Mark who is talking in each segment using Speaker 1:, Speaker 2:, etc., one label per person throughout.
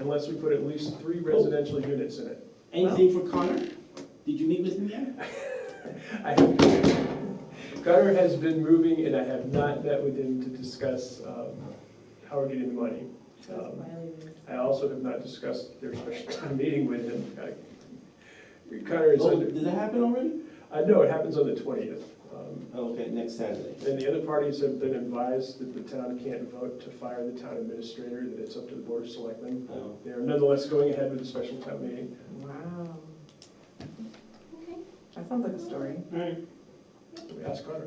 Speaker 1: unless we put at least three residential units in it.
Speaker 2: Anything for Connor? Did you meet with him yet?
Speaker 1: I have, Connor has been moving and I have not met with him to discuss um, how we're getting the money. Um, I also have not discussed their special town meeting with him. I- Connor is
Speaker 2: Oh,
Speaker 1: under,
Speaker 2: did that happen already?
Speaker 1: I know it happens on the twentieth. Um,
Speaker 2: Oh, Okay, next Saturday.
Speaker 1: And the other parties have been advised that the town can't vote to fire the town administrator, that it's up to the board of selectmen.
Speaker 2: Oh,
Speaker 1: They are nonetheless going ahead with the special town meeting.
Speaker 3: Wow. That sounds like a story.
Speaker 2: All right,
Speaker 1: We asked Connor.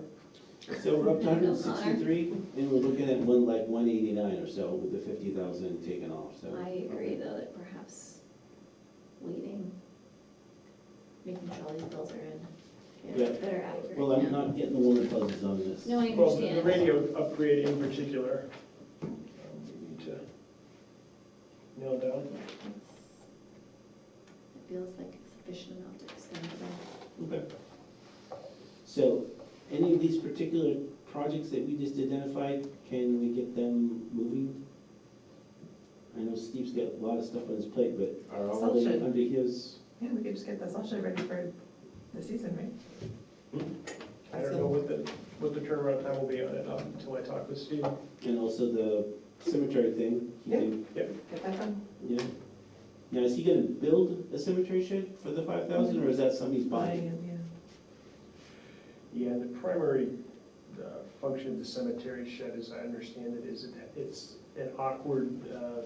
Speaker 2: so we're up to hundred and sixty-three, and we're looking at one, like, one eighty-nine or so with the fifty thousand taken off, so.
Speaker 4: I agree though that perhaps waiting, making sure all these bills are in,
Speaker 2: Yeah.
Speaker 4: is better accurate
Speaker 2: Well, I'm
Speaker 4: now.
Speaker 2: not getting the woman buzzes on this.
Speaker 4: No, I
Speaker 1: Well, the- the
Speaker 4: understand.
Speaker 1: radio upgrade in particular, um, we need to nail down.
Speaker 4: It feels like a sufficient amount to expend it.
Speaker 2: Okay. So, any of these particular projects that we just identified, can we get them moving? I know Steve's got a lot of stuff on his plate, but are all of them
Speaker 3: Assumption.
Speaker 2: under his?
Speaker 3: Yeah, we could just get this all should ready for the season, right?
Speaker 2: Hmm.
Speaker 1: I don't know what the, what the turnaround time will be on it um, until I talk with Steve.
Speaker 2: And also the cemetery thing, he can,
Speaker 3: Get that done?
Speaker 2: yeah. Now, is he gonna build a cemetery shed for the five thousand, or is that something he's buying?
Speaker 3: Yeah.
Speaker 1: Yeah, the primary uh, function of the cemetery shed, as I understand it, is it- it's an awkward uh,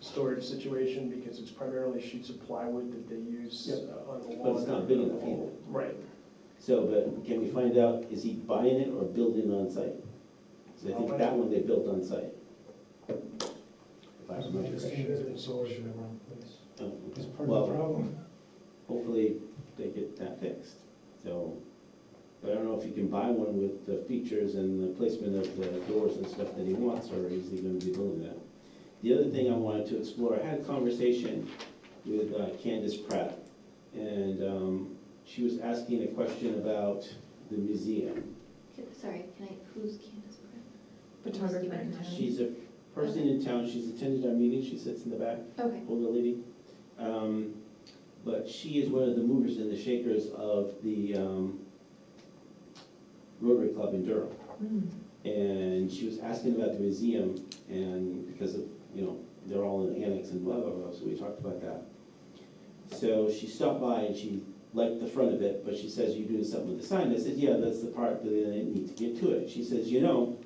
Speaker 1: storage situation because it's primarily sheets of plywood that they use
Speaker 2: Yeah.
Speaker 1: uh, on the lawn.
Speaker 2: But it's not big enough either.
Speaker 1: Right.
Speaker 2: So, but can we find out, is he buying it or building on site? So I think that one they built on site. If I remember correctly. Oh, okay. Well,
Speaker 5: problem.
Speaker 2: hopefully they get that fixed, so. But I don't know if you can buy one with the features and the placement of the doors and stuff that he wants, or is he gonna be building that? The other thing I wanted to explore, I had a conversation with uh, Candace Pratt, and um, she was asking a question about the museum.
Speaker 4: Can- Sorry, can I, who's Candace Brown?
Speaker 3: Photographer and
Speaker 2: She's a person in town, she's attended our meetings, she sits in the back,
Speaker 4: Okay,
Speaker 2: older lady. Um, But she is one of the movers and the shakers of the um, Rotary Club in Durham.
Speaker 3: Hmm.
Speaker 2: And she was asking about the museum and because of, you know, they're all in annex and blah, blah, blah, so we talked about that. So she stopped by and she liked the front of it, but she says, you're doing something with the sign. I said, yeah, that's the part that I need to get to it. She says, you know,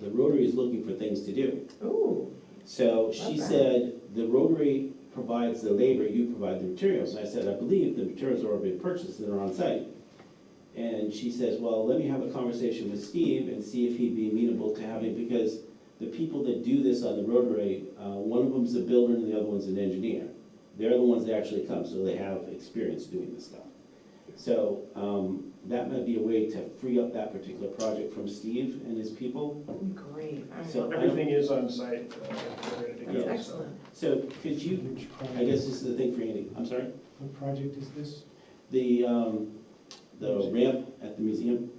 Speaker 2: the Rotary is looking for things to do.
Speaker 3: Hmm. Ooh,
Speaker 2: So she
Speaker 3: that.
Speaker 2: said, the Rotary provides the labor, you provide the materials. And I said, I believe the materials are already purchased and they're on site. And she says, well, let me have a conversation with Steve and see if he'd be amenable to having, because the people that do this on the Rotary, uh, one of them's a builder and the other one's an engineer. They're the ones that actually come, so they have experience doing this stuff. So, um, that might be a way to free up that particular project from Steve and his people.
Speaker 3: great. All right.
Speaker 2: So-
Speaker 1: Everything is on site. uh, we're ready to go,
Speaker 3: That's
Speaker 1: so.
Speaker 3: excellent.
Speaker 2: So could you,
Speaker 5: Which
Speaker 2: I guess
Speaker 5: project,
Speaker 2: this is the thing for Andy, I'm sorry?
Speaker 5: what project is this?
Speaker 2: the, um, the
Speaker 5: Museum.
Speaker 2: ramp at the museum.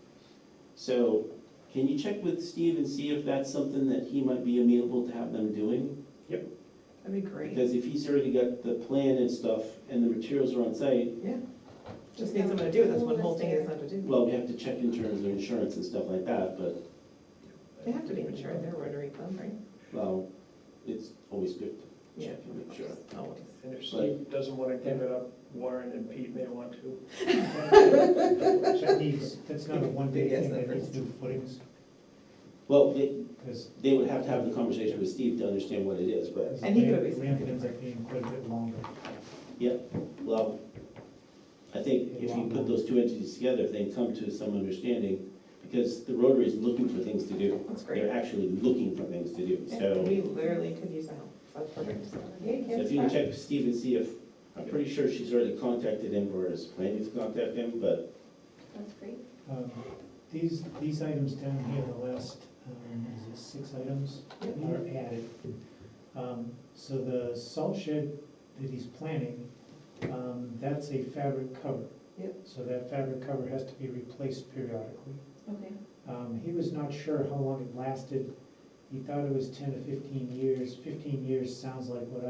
Speaker 2: So can you check with Steve and see if that's something that he might be amenable to have them doing?
Speaker 3: That'd be great.
Speaker 2: Because if he's already got the plan and stuff and the materials are on site,
Speaker 3: Just need someone to do it. That's one whole thing is not to do.
Speaker 2: well, we have to check in terms of insurance and stuff like that, but,
Speaker 3: They have to be mature. They're a Rotary Club, right?
Speaker 2: well, it's always good to
Speaker 3: Yeah.
Speaker 2: check and make sure.
Speaker 3: Always.
Speaker 1: And if Steve doesn't want to give it up, Warren and Pete may want to.
Speaker 5: That needs, that's not a one-day
Speaker 3: Yes,
Speaker 5: thing,
Speaker 3: that
Speaker 5: that needs
Speaker 3: first.
Speaker 5: new footings,
Speaker 2: Well, they,
Speaker 5: because.
Speaker 2: they would have to have the conversation with Steve to understand what it is, but,
Speaker 3: And he could always-
Speaker 5: Ramp ends up being quite a bit longer.
Speaker 2: well, I think if you put those two entities together, if they come to some understanding, because the Rotary is looking for things to do.
Speaker 3: That's great.
Speaker 2: they're actually looking for things to do,
Speaker 3: And
Speaker 2: so.
Speaker 3: we literally could use the help. That's perfect. Yay,
Speaker 2: So
Speaker 3: kids.
Speaker 2: if you can check Steve and see if, I'm pretty sure she's already contacted him or is planning to contact him, but
Speaker 4: that's great.
Speaker 5: Um, These, these items down here, the last, um, is it six items,
Speaker 3: Yeah.
Speaker 5: are added. Um, So the salt shed that he's planning, um, that's a fabric cover.
Speaker 3: Yep.
Speaker 5: So that fabric cover has to be replaced periodically.
Speaker 4: Okay.
Speaker 5: Um, he was not sure how long it lasted. He thought it was ten to fifteen years. Fifteen years sounds like what